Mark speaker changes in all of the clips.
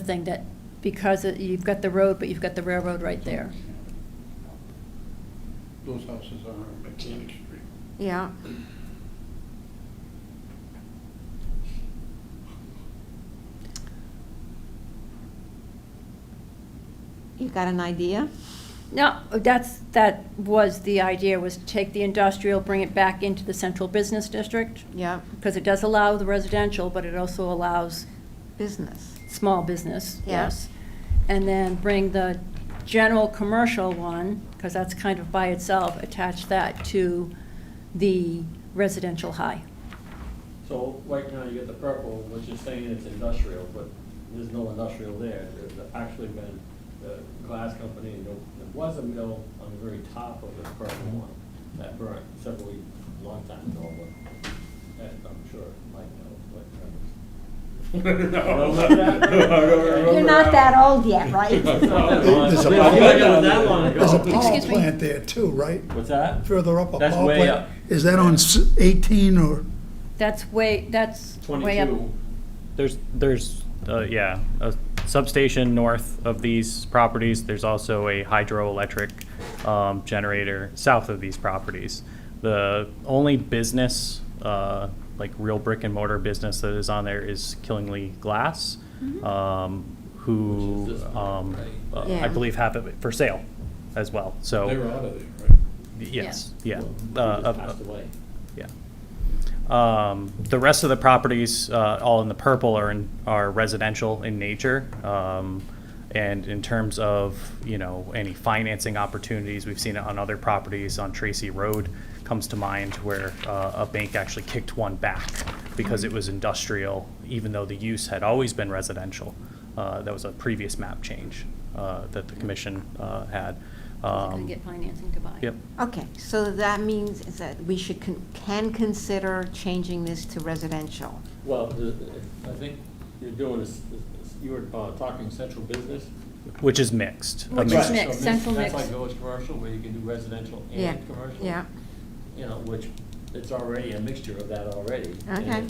Speaker 1: something that, because it- you've got the road, but you've got the railroad right there.
Speaker 2: Those houses are on Mechanic Street.
Speaker 3: Yeah. You got an idea?
Speaker 1: No, that's, that was the idea, was to take the industrial, bring it back into the central business district,
Speaker 3: Yeah.
Speaker 1: because it does allow the residential, but it also allows
Speaker 3: Business.
Speaker 1: small business,
Speaker 3: Yeah.
Speaker 1: yes. And then bring the general commercial one, because that's kind of by itself, attach that to the residential high.
Speaker 4: So right now, you got the purple, which is saying it's industrial, but there's no industrial there. There's actually been the glass company, and there there was a mill on the very top of this purple one that burnt several, long time ago, but that I'm sure Mike uh, knows what.
Speaker 3: You're not that old yet, right?
Speaker 5: There's a
Speaker 4: Yeah, yeah, it was that long
Speaker 5: power-
Speaker 4: ago.
Speaker 5: there's a power
Speaker 1: Excuse me?
Speaker 5: plant there too, right?
Speaker 4: What's that?
Speaker 5: Further up a
Speaker 4: That's
Speaker 5: power
Speaker 4: way
Speaker 5: plant.
Speaker 4: up.
Speaker 5: Is that on s- 18 or,
Speaker 1: That's way, that's way up.
Speaker 4: Twenty-two.
Speaker 6: There's, there's, uh, yeah, a substation north of these properties. There's also a hydroelectric um, generator south of these properties. The only business, uh, like real brick and mortar business that is on there is Killingly Glass, um,
Speaker 4: Which
Speaker 6: who
Speaker 4: is this one,
Speaker 6: um,
Speaker 4: right?
Speaker 6: uh,
Speaker 3: Yeah.
Speaker 6: I believe have it for sale as well, so.
Speaker 2: They're out of there, right?
Speaker 6: Yes, yeah. Uh,
Speaker 4: Well, he
Speaker 6: uh,
Speaker 4: just Passed away.
Speaker 6: yeah. Um, The rest of the properties, uh, all in the purple, are in, are residential in nature. Um, And in terms of, you know, any financing opportunities, we've seen it on other properties, on Tracy Road comes to mind, where uh, a bank actually kicked one back because it was industrial, even though the use had always been residential. Uh, That was a previous map change uh, that the commission uh, had.
Speaker 1: Gonna
Speaker 6: Um,
Speaker 1: get financing to buy.
Speaker 6: Yep.
Speaker 3: Okay, so that means is that we should, con- can consider changing this to residential.
Speaker 4: Well, the- I think you're doing, this- this- you were uh, talking central business.
Speaker 6: Which is mixed. a
Speaker 1: Which is
Speaker 6: mixed-
Speaker 4: Right,
Speaker 1: mixed,
Speaker 4: so
Speaker 1: central
Speaker 4: That's
Speaker 1: mixed.
Speaker 4: like village commercial, where you can do residential
Speaker 3: Yeah,
Speaker 4: and commercial.
Speaker 3: yeah.
Speaker 4: You know, which, it's already a mixture of that already. and-
Speaker 3: Okay.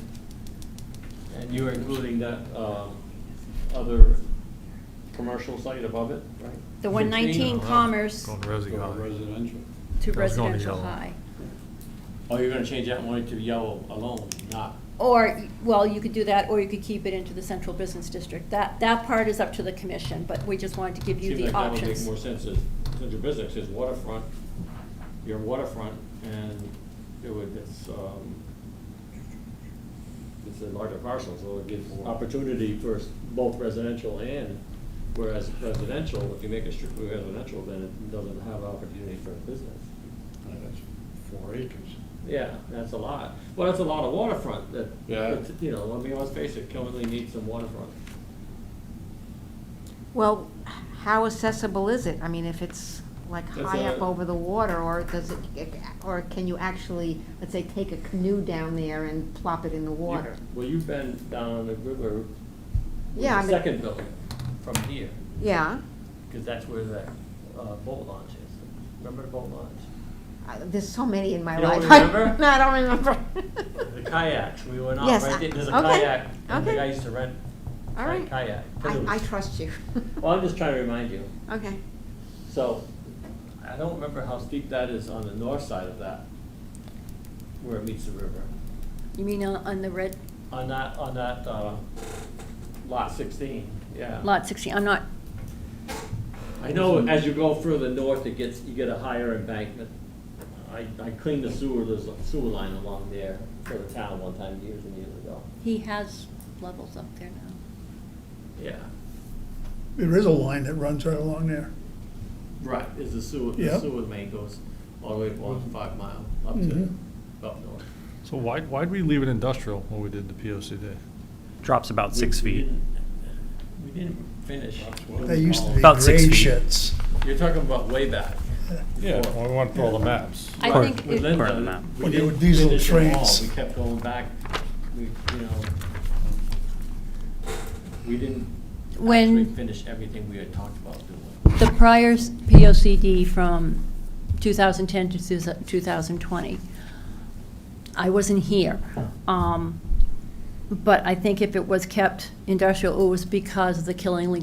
Speaker 4: And you're including that um, other commercial site above it, right?
Speaker 1: The 119 Commerce
Speaker 7: Going resi
Speaker 2: Or
Speaker 7: high.
Speaker 2: residential.
Speaker 1: to
Speaker 7: That was going to
Speaker 1: residential
Speaker 7: yellow.
Speaker 1: high.
Speaker 4: Oh, you're gonna change that one to yellow alone, not,
Speaker 1: Or, well, you could do that, or you could keep it into the central business district. That, that part is up to the commission, but we just wanted to give you
Speaker 4: seems
Speaker 1: the
Speaker 4: like that would make
Speaker 1: options.
Speaker 4: more sense as, since your business is waterfront, you're waterfront, and it would, it's, um, it's a larger parcel, so it gives opportunity for s- both residential and, whereas residential, if you make it strictly residential, then it doesn't have opportunity for business.
Speaker 2: Uh, That's four acres.
Speaker 4: Yeah, that's a lot. Well, that's a lot of waterfront that,
Speaker 2: Yeah.
Speaker 4: that's, you know, I mean, let's face it, Killingley needs some waterfront.
Speaker 3: Well, how accessible is it? I mean, if it's like
Speaker 4: That's
Speaker 3: high up
Speaker 4: a-
Speaker 3: over the water, or does it, eh, or can you actually, let's say, take a canoe down there and plop it in the water?
Speaker 4: You- Well, you've been down the river with
Speaker 3: Yeah, I
Speaker 4: the
Speaker 3: mean-
Speaker 4: second building from here,
Speaker 3: Yeah,
Speaker 4: because that's where that uh, boat launch is. Remember the boat launch?
Speaker 3: I- there's so many in my
Speaker 4: You don't
Speaker 3: life.
Speaker 4: remember?
Speaker 3: No, I don't remember.
Speaker 4: The kayaks, we went out
Speaker 3: Yes,
Speaker 4: right
Speaker 3: I-
Speaker 4: there, there's a
Speaker 3: okay,
Speaker 4: kayak, and the
Speaker 3: okay.
Speaker 4: guy used to rent
Speaker 3: All
Speaker 4: a
Speaker 3: right.
Speaker 4: kayak.
Speaker 3: I,
Speaker 4: canoes.
Speaker 3: I trust you.
Speaker 4: Well, I'm just trying to remind you.
Speaker 3: Okay,
Speaker 4: So, I don't remember how steep that is on the north side of that, where it meets the river.
Speaker 1: You mean on on the red,
Speaker 4: On that, on that uh, lot sixteen, yeah.
Speaker 1: lot 16, I'm not,
Speaker 4: I know as you go further north, it gets, you get a higher embankment. I, I cleaned the sewer, there's a sewer line along there for the town one time years and years ago.
Speaker 1: he has levels up there now.
Speaker 4: Yeah,
Speaker 5: there is a line that runs right along there.
Speaker 4: right, is the sewer,
Speaker 5: Yeah.
Speaker 4: the sewer main goes all the way along five mile up to,
Speaker 5: Mhm.
Speaker 4: up north.
Speaker 7: So why, why'd we leave it industrial when we did the POCD?
Speaker 6: Drops about six
Speaker 4: We- we
Speaker 6: feet.
Speaker 4: didn't- We didn't finish.
Speaker 5: They used to be
Speaker 6: About six
Speaker 5: gray
Speaker 6: feet.
Speaker 5: sheds.
Speaker 4: You're talking about way back.
Speaker 7: Yeah,
Speaker 4: Before.
Speaker 7: well, we went through all the maps.
Speaker 1: I
Speaker 6: Or-
Speaker 1: think,
Speaker 4: With
Speaker 1: it-
Speaker 6: Correct the
Speaker 4: Linda.
Speaker 6: map.
Speaker 4: we
Speaker 5: Well, there were
Speaker 4: didn't
Speaker 5: diesel
Speaker 4: finish them all.
Speaker 5: trains.
Speaker 4: We kept going back, we, you know, we didn't actually
Speaker 1: when
Speaker 4: finish everything we had talked about doing.
Speaker 1: the prior s- POCD from 2010 to 2020, I wasn't here. Um, But I think if it was kept industrial, it was because of the Killingley